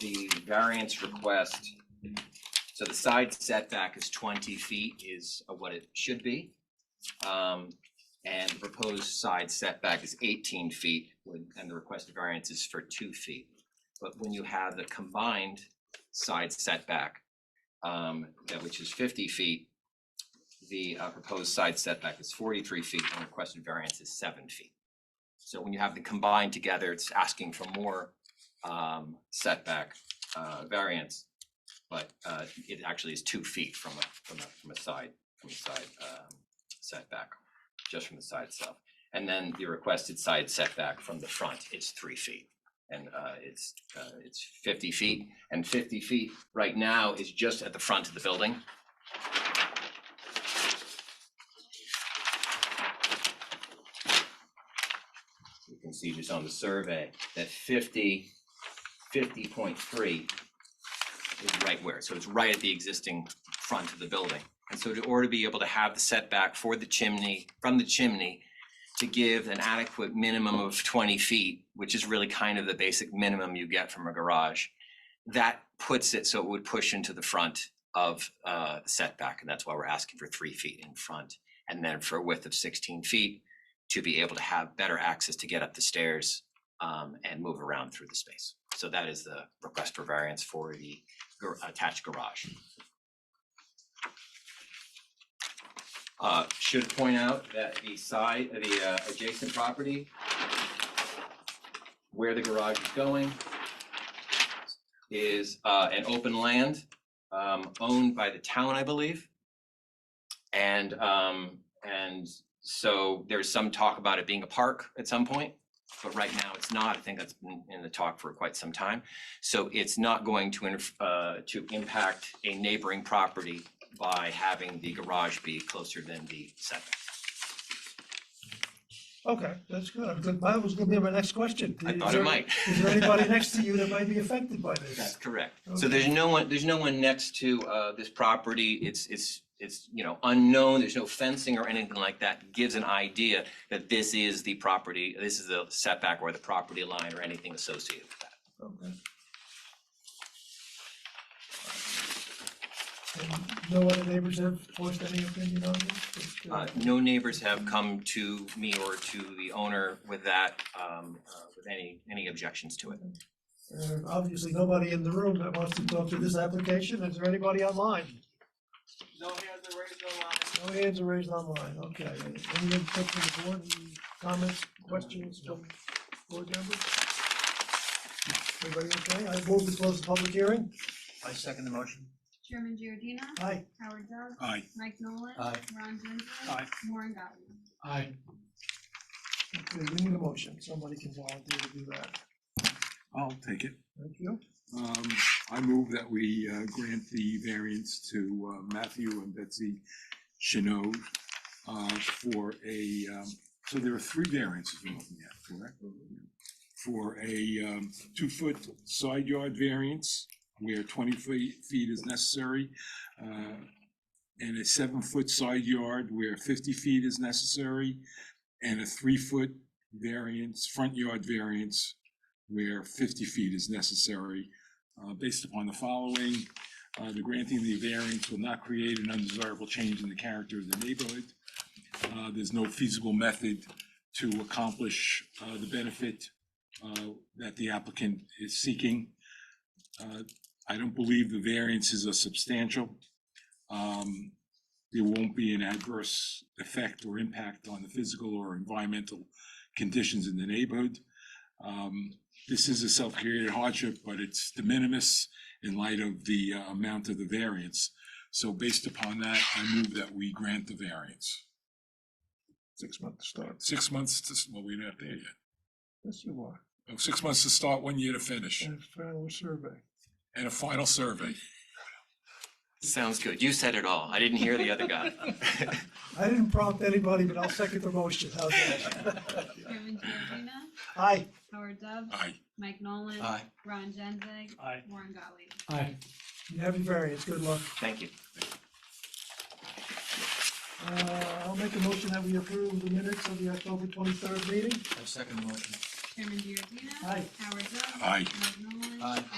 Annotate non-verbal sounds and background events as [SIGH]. the variance request, so the side setback is twenty feet is uh, what it should be. Um, and the proposed side setback is eighteen feet, when- and the requested variance is for two feet. But when you have the combined side setback, um, that which is fifty feet, the uh, proposed side setback is forty-three feet, and the requested variance is seven feet. So when you have the combined together, it's asking for more um setback uh variance. But uh it actually is two feet from a from a from a side, from a side um setback, just from the side itself. And then the requested side setback from the front is three feet. And uh it's uh it's fifty feet and fifty feet right now is just at the front of the building. You can see just on the survey that fifty fifty point three is right where, so it's right at the existing front of the building. And so to order to be able to have the setback for the chimney, from the chimney, to give an adequate minimum of twenty feet, which is really kind of the basic minimum you get from a garage, that puts it so it would push into the front of uh setback, and that's why we're asking for three feet in front. And then for a width of sixteen feet, to be able to have better access to get up the stairs um, and move around through the space. So that is the request for variance for the gar- attached garage. Uh, should point out that the side, the uh, adjacent property where the garage is going is uh, an open land um, owned by the town, I believe. And um, and so there's some talk about it being a park at some point but right now it's not. I think that's been in the talk for quite some time. So it's not going to, interf- uh, to impact a neighboring property by having the garage be closer than the setback. Okay, that's good. I'm good. That was gonna be my next question. I Is thought there- it might. Is there anybody next to you that might be affected by [LAUGHS] That's this? correct. So there's no one, there's no one next to, uh, this property. It's, it's, it's, you know, unknown. There's no fencing or anything like that. Gives an idea that this is the property, this is the setback or the property line or anything associated with that. Okay. And No other neighbors have voiced any opinion on this? Just, uh, Uh, no neighbors have come to me or to the owner with that, um, uh, with any, any objections to it. uh, Obviously, nobody in the room that wants to go through this application. Is there anybody online? No hands are raised, no lines. No hands are raised online. Okay. Any input from the board? Any Comments, questions from board members? Everybody okay? I move to close the public hearing. I second the motion. Chairman Giordina. Aye. Howard Dubs. Aye. Mike Nolan. Aye. Ron Genzeg. Aye. Warren Gottlieb. Aye. Okay, we need a motion, somebody can volunteer to do that. I'll take it. Thank you. Um, I move that we uh, grant the variance to uh, Matthew and Betsy Chanel uh, for a, um, so there are three variances we're looking at, correct? For a um, two-foot side yard variance where twenty feet feet is necessary, uh, and a seven-foot side yard where fifty feet is necessary, and a three-foot variance, front yard variance where fifty feet is necessary. uh, Based upon the following, Uh, the granting of the variance will not create an undesirable change in the character of the neighborhood. Uh, There's no feasible method to accomplish uh, the benefit uh, that the applicant is seeking. Uh, I don't believe the variances are substantial. Um, There won't be an adverse effect or impact on the physical or environmental conditions in the neighborhood. Um, This is a self-created hardship, but it's de minimis in light of the uh, amount of the variance. So based upon that, I move that we grant the variance. Six months start. Six months to, well, we're not there yet. Yes, you are, Oh, Six months to start, one year to finish, and a final survey. and a final survey. Sounds good. You said it all. I didn't hear the other [LAUGHS] guy. I didn't prompt anybody, but I'll second the motion, how's that? Chairman Giordina. Aye, Howard Dubs. Aye. Mike Nolan. Aye. Ron Genzeg. Aye. Warren Gottlieb. Aye. you have your variance, good luck. Thank you. Uh, I'll make a motion that we approve the minutes of the October twenty-third meeting. I second the motion. Chairman Giordina. Aye. Howard Dubs. Aye. Mike Nolan. Aye.